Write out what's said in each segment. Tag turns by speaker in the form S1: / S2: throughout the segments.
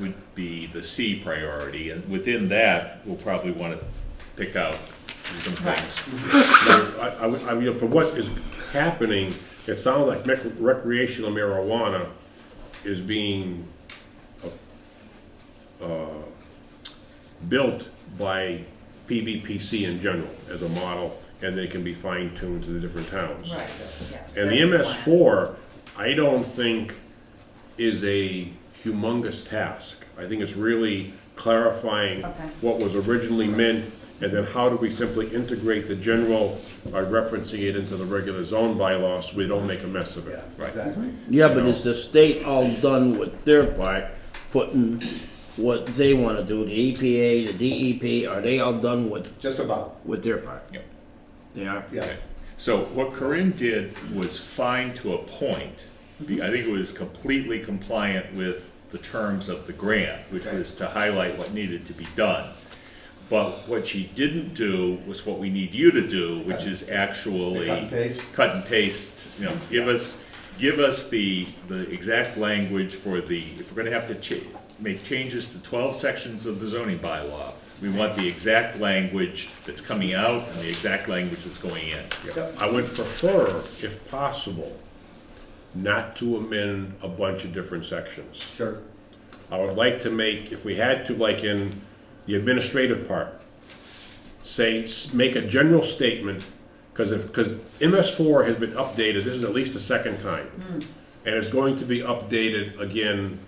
S1: would be the C priority, and within that, we'll probably wanna pick out some things.
S2: I, I would- I, you know, for what is happening, it sounds like mec- recreational marijuana is being, uh, built by PVPC in general as a model, and they can be fine tuned to the different towns.
S3: Right, yes.
S2: And the MS four, I don't think is a humongous task. I think it's really clarifying
S3: Okay.
S2: what was originally meant, and then how do we simply integrate the general by referencing it into the regular zone bylaws, so we don't make a mess of it.
S4: Yeah, exactly.
S5: Yeah, but is the state all done with their part, putting what they want to do, the EPA, the DEP, are they all done with,
S4: Just about,
S5: with their part?
S1: Yep.
S5: They are?
S4: yeah.
S1: So what Corinne did was fine to a point. Be- I think it was completely compliant with the terms of the grant, which
S4: Okay.
S1: was to highlight what needed to be done. But what she didn't do was what we need you to do, which is actually
S4: Cut and paste.
S1: cut and paste, you know, give us, give us the, the exact language for the, if we're gonna have to cha- make changes to twelve sections of the zoning bylaw, we want the exact language that's coming out and the exact language that's going in.
S4: Yep.
S2: I would prefer, if possible, not to amend a bunch of different sections.
S4: Sure.
S2: I would like to make, if we had to, like in the administrative part, say, s- make a general statement, because if, because MS four has been updated, this is at least the second time. And it's going to be updated again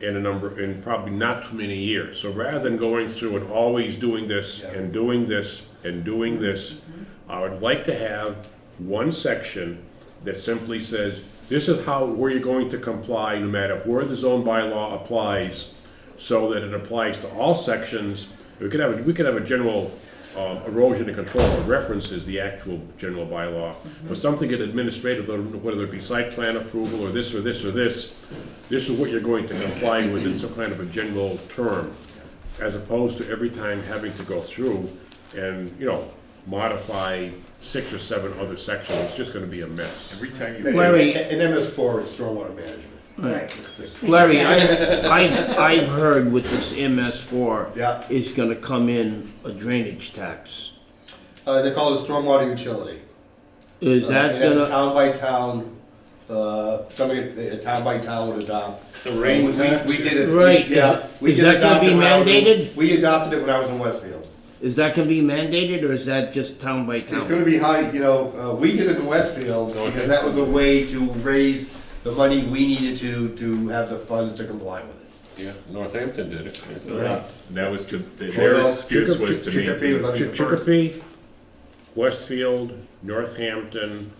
S2: in a number, in probably not too many years. So rather than going through and always doing this
S4: Yeah.
S2: and doing this and doing this, I would like to have one section that simply says, this is how, where you're going to comply, no matter where the zone bylaw applies, so that it applies to all sections. We could have, a- we could have a general um, erosion and control that references the actual general bylaw, but something in administrative, whether it be site plan approval, or this, or this, or this, this is what you're going to comply with in some kind of a general term, as opposed to every time having to go through and, you know, modify six or seven other sections, it's just gonna be a mess.
S1: Every time you,
S5: Larry-
S4: And and MS four is stormwater management.
S3: Right.
S5: Larry, I, I've, I've heard with this MS four.
S4: Yeah.
S5: Is gonna come in a drainage tax.
S4: Uh, they call it a stormwater utility.
S5: Is
S4: Uh,
S5: that
S4: and That's a
S5: gonna,
S4: town by town, uh, something that a town by town would adopt.
S1: The rain
S4: We- we-
S1: tax?
S4: We did it. we-
S5: Right.
S4: Yeah. we
S5: Is
S4: did
S5: that gonna
S4: adopt it
S5: be
S4: when I was in-
S5: mandated?
S4: We adopted it when I was in Westfield.
S5: is that gonna be mandated or is that just town by
S4: It's gonna
S5: town?
S4: be high, you know, uh, we did it in Westfield because that was a way to raise the money we needed to, to have the funds to comply with it.
S6: Yeah, Northampton did it.
S4: Yeah.
S1: that was to, their excuse was to
S4: Chicopee- Chicopee was
S1: maintain.
S4: on the first.
S2: Chicopee, Westfield, Northampton,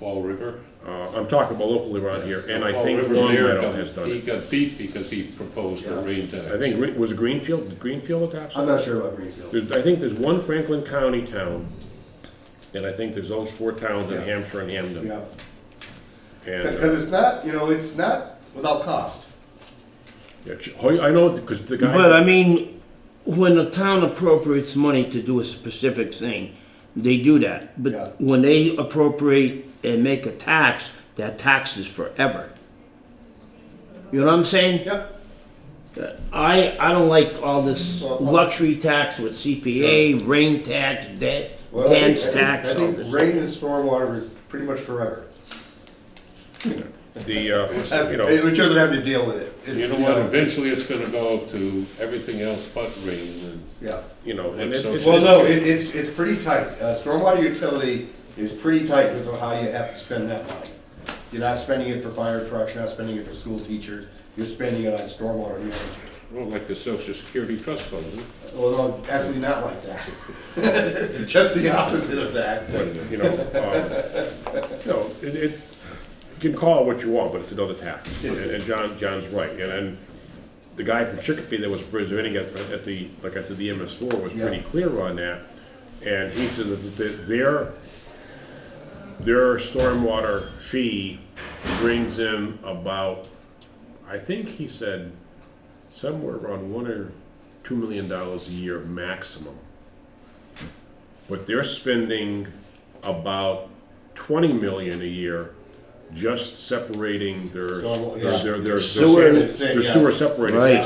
S6: Fall River.
S2: uh, I'm talking about locally around here, and I
S6: Fall
S2: think
S6: River Mayor
S2: Longmeadow
S6: got-
S2: has done
S6: He
S2: it.
S6: got beat because he proposed the
S4: Yeah.
S6: rain tax.
S2: I think, Gre- was Greenfield, did Greenfield adopt
S4: I'm
S2: it?
S4: not sure about Greenfield.
S2: There's, I think there's one Franklin County town, and I think there's those four towns in
S4: Yeah.
S2: Hampshire and Hamden.
S4: Yeah.
S2: And, uh,
S4: Because it's not, you know, it's not without cost.
S2: yeah, Chi- Hoy- I know, because the guy.
S5: But I mean, when a town appropriates money to do a specific thing, they do that.
S4: Yeah.
S5: But when they appropriate and make a tax, that tax is forever. You know what I'm saying?
S4: Yep.
S5: I, I don't like all this
S4: Well, well-
S5: luxury tax with CPA, rain tax, debt,
S4: Well, I think-
S5: dance
S4: I think-
S5: tax,
S4: I
S5: all
S4: think
S5: this.
S4: rain and stormwater is pretty much forever.
S2: The, uh, you know,
S4: Which doesn't have to deal with it. It's,
S6: You know what, eventually it's gonna go to everything else but rain and.
S4: Yeah.
S2: you know, and it-
S6: Well,
S2: it's.
S4: Well, no, it, it's, it's pretty tight. Uh, stormwater utility is pretty tight with how you have to spend that money. You're not spending it for fire trucks, you're not spending it for school teachers, you're spending it on stormwater management.
S6: Well, like the Social Security Trust Fund, isn't it?
S4: Well, no, actually not like that. Just the opposite of that.
S2: you know, um, no, it, it, you can call it what you want, but it's another tax. And, and John, John's right, and then the guy from Chicopee that was presenting at, at the, like I said, the MS four was
S4: Yeah.
S2: pretty clear on that. And he said that the- their, their stormwater fee brings in about, I think he said, somewhere around one or two million dollars a year maximum. But they're spending about twenty million a year just separating their,
S4: Storm-
S2: their, their, their- their
S5: Sewer.
S2: their sewer separating.
S5: Right.